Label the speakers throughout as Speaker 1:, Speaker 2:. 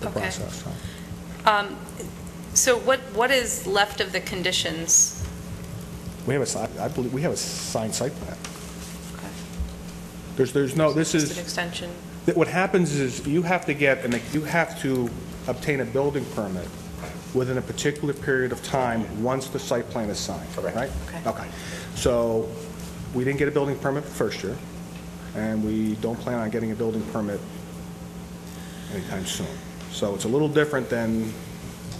Speaker 1: the
Speaker 2: Okay.
Speaker 1: process. so.
Speaker 2: Um, So what, what is left of the conditions?
Speaker 1: We have a, si- I believe, we have a signed site plan.
Speaker 2: Okay.
Speaker 1: There's, there's no, this
Speaker 2: Just an
Speaker 1: is,
Speaker 2: extension.
Speaker 1: that what happens is you have to get, and you have to obtain a building permit within a particular period of time, once the site plan is signed,
Speaker 3: Correct.
Speaker 1: right?
Speaker 2: Okay.
Speaker 1: Okay. So we didn't get a building permit the first year, and we don't plan on getting a building permit anytime soon. So it's a little different than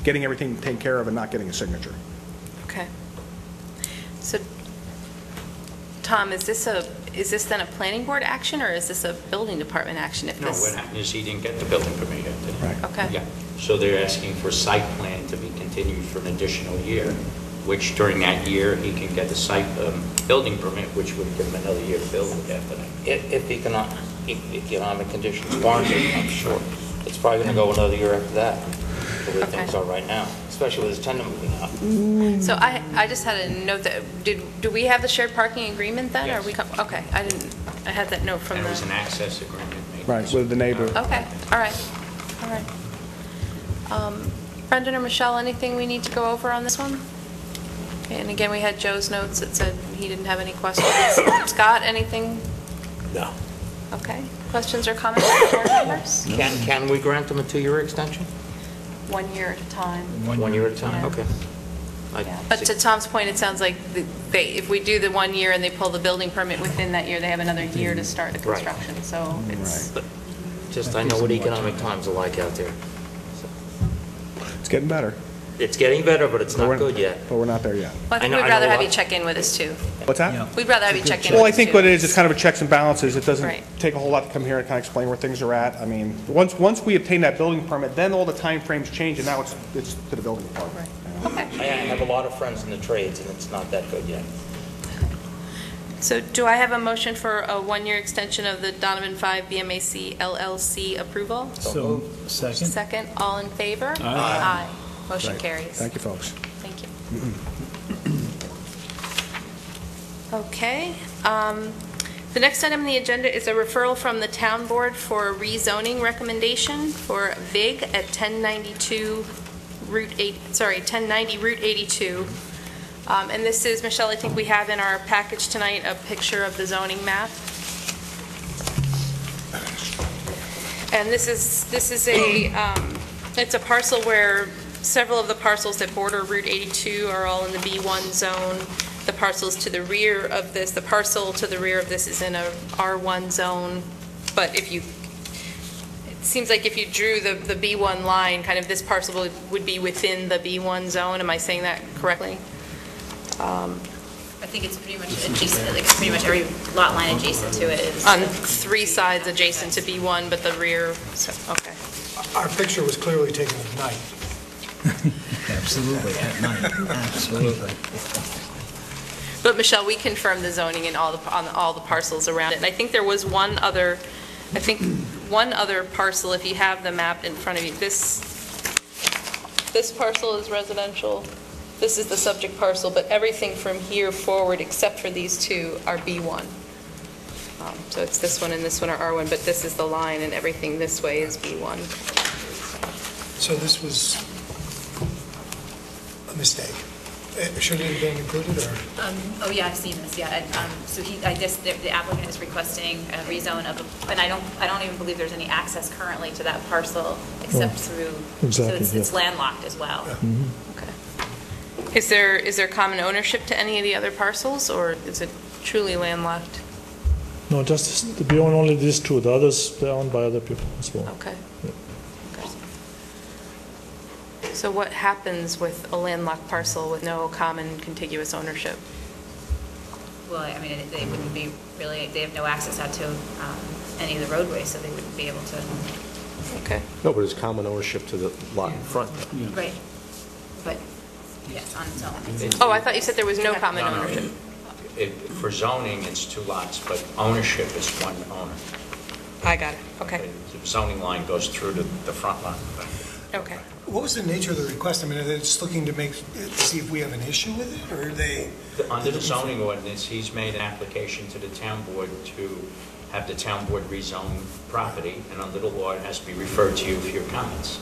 Speaker 1: getting everything taken care of and not getting a signature.
Speaker 2: Okay. So, Tom, is this a, is this then a planning board action, or is this a building department action? If
Speaker 3: No,
Speaker 2: this-
Speaker 3: what happened is he didn't get the building permit yet. did he?
Speaker 1: Right.
Speaker 2: Okay.
Speaker 3: Yeah, so they're asking for site plan to be continued for an additional year, which during that year, he can get the site, um, building permit, which would give him another year to build it after that.
Speaker 4: If, if economic, economic conditions warrant it, I'm sure. It's probably going to go another year after that, the way
Speaker 2: Okay.
Speaker 4: things are right now, especially with this tenant moving out.
Speaker 2: So I, I just had a note that, did, do we have the shared parking agreement then? Are we, co- okay, I didn't, I had that note from
Speaker 3: And
Speaker 2: the...
Speaker 3: it was an access agreement made.
Speaker 1: Right, with the neighbor.
Speaker 2: Okay, all right, all right. Um, Brendan or Michelle, anything we need to go over on this one? And again, we had Joe's notes that said he didn't have any questions. Scott, anything?
Speaker 4: No.
Speaker 2: Okay. Questions or comments from board members?
Speaker 4: Can, can we grant them a two-year extension?
Speaker 2: One year at a time.
Speaker 4: One year at a time?
Speaker 2: Yeah.
Speaker 4: Okay. I
Speaker 2: Yeah. But to
Speaker 4: see.
Speaker 2: Tom's point, it sounds like the- they, if we do the one year and they pull the building permit within that year, they have another year to start the
Speaker 4: Right.
Speaker 2: construction, so it's,
Speaker 4: But Just, I know what economic times are like out there.
Speaker 1: It's getting better.
Speaker 4: It's getting better, but it's
Speaker 1: but we're-
Speaker 4: not good yet.
Speaker 1: But we're not there yet.
Speaker 2: Well, I
Speaker 4: I
Speaker 2: think
Speaker 4: know-
Speaker 2: we'd
Speaker 4: I know
Speaker 2: rather have
Speaker 4: a
Speaker 2: you
Speaker 4: lot.
Speaker 2: check in with us, too.
Speaker 1: What's
Speaker 5: Yeah.
Speaker 1: that?
Speaker 2: We'd rather have you check in with us, too.
Speaker 1: Well, I think what it is, it's kind of a checks and balances. It
Speaker 2: Right.
Speaker 1: doesn't take a whole lot to come here and kind of explain where things are at. I mean, once, once we obtain that building permit, then all the timeframes change, and now it's, it's to the building department. you know?
Speaker 2: Okay.
Speaker 4: I I have a lot of friends in the trades, and it's not that good yet.
Speaker 2: So do I have a motion for a one-year extension of the Donovan 5 BMAC LLC approval?
Speaker 5: So, second?
Speaker 2: Second, all in favor? Aye. Motion
Speaker 1: Right.
Speaker 2: carries.
Speaker 1: Thank you, folks.
Speaker 2: Thank you. Okay. um, The next item on the agenda is a referral from the town board for a rezoning recommendation for VIG at 1092 Route 8, sorry, 1090 Route 82. Um, And this is, Michelle, I think we have in our package tonight a picture of the zoning map. And this is, this is a, um, it's a parcel where several of the parcels that border Route 82 are all in the B1 zone. The parcels to the rear of this, the parcel to the rear of this is in a R1 zone, but if you, it seems like if you drew the, the B1 line, kind of this parcel would- would be within the B1 zone. Am I saying that correctly?
Speaker 6: I think it's pretty much adjacent, like, it's pretty much every lot line adjacent to it is.
Speaker 2: On three sides adjacent to B1, but the rear, so, okay.
Speaker 7: Our picture was clearly taken at night.
Speaker 5: Absolutely, at night, absolutely.
Speaker 2: But Michelle, we confirmed the zoning in all the, on all the parcels around it. And I think there was one other, I think, one other parcel, if you have the map in front of you. This, this parcel is residential. This is the subject parcel, but everything from here forward, except for these two, are B1. Um, So it's this one and this one are R1, but this is the line, and everything this way is B1.
Speaker 7: So this was a mistake. Eh, Should it have been included, or?
Speaker 6: Um, Oh, yeah, I've seen this, yeah. and, um, So he, I guess the the applicant is requesting a rezone of, a- and I don't, I don't even believe there's any access currently to that parcel except through, so
Speaker 8: exactly,
Speaker 6: it's-
Speaker 8: yeah.
Speaker 6: it's landlocked as well.
Speaker 2: Okay. Is there, is there common ownership to any of the other parcels, or is it truly landlocked?
Speaker 8: No, just, this- we own only these two, the others, they're owned by other people as well.
Speaker 2: Okay. Okay. So what happens with a landlocked parcel with no common contiguous ownership?
Speaker 6: Well, I mean, it- they wouldn't be really, they have no access out to um, any of the roadways, so they wouldn't be able to
Speaker 2: Okay.
Speaker 9: No, but it's common ownership to the lot in front.
Speaker 6: Right, but, yes, on its own.
Speaker 2: Oh, I thought you said there was no common ownership.
Speaker 3: It- For zoning, it's two lots, but ownership is one owner.
Speaker 2: I got it. Okay,
Speaker 3: The zoning line goes through to the front lot.
Speaker 2: okay.
Speaker 7: What was the nature of the request? I mean, are they just looking to make, see if we have an issue with it, or are they?
Speaker 3: Under the zoning ordinance, he's made an application to the town board to have the town board rezone property, and under the law, it has to be referred to you for your comments.